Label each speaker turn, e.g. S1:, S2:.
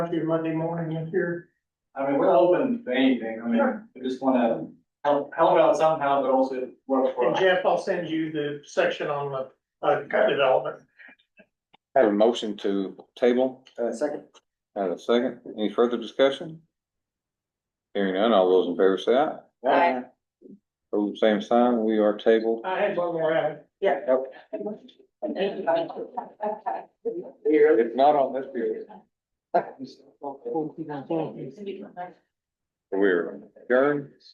S1: Monday, Monday morning in here.
S2: I mean, we're open to anything, I mean, we just wanna help, help out somehow, but also work for
S1: And
S2: us.
S1: Jeff, I'll send you the section on the, uh, development.
S3: Have a motion to table,
S4: Uh, second,
S3: have a second, any further discussion? Hearing none, all those in favor say aye.
S5: Aye.
S3: Pose same sign, we are tabled.
S1: I had one more item.
S4: here.
S3: It's not on this period, we're adjourned.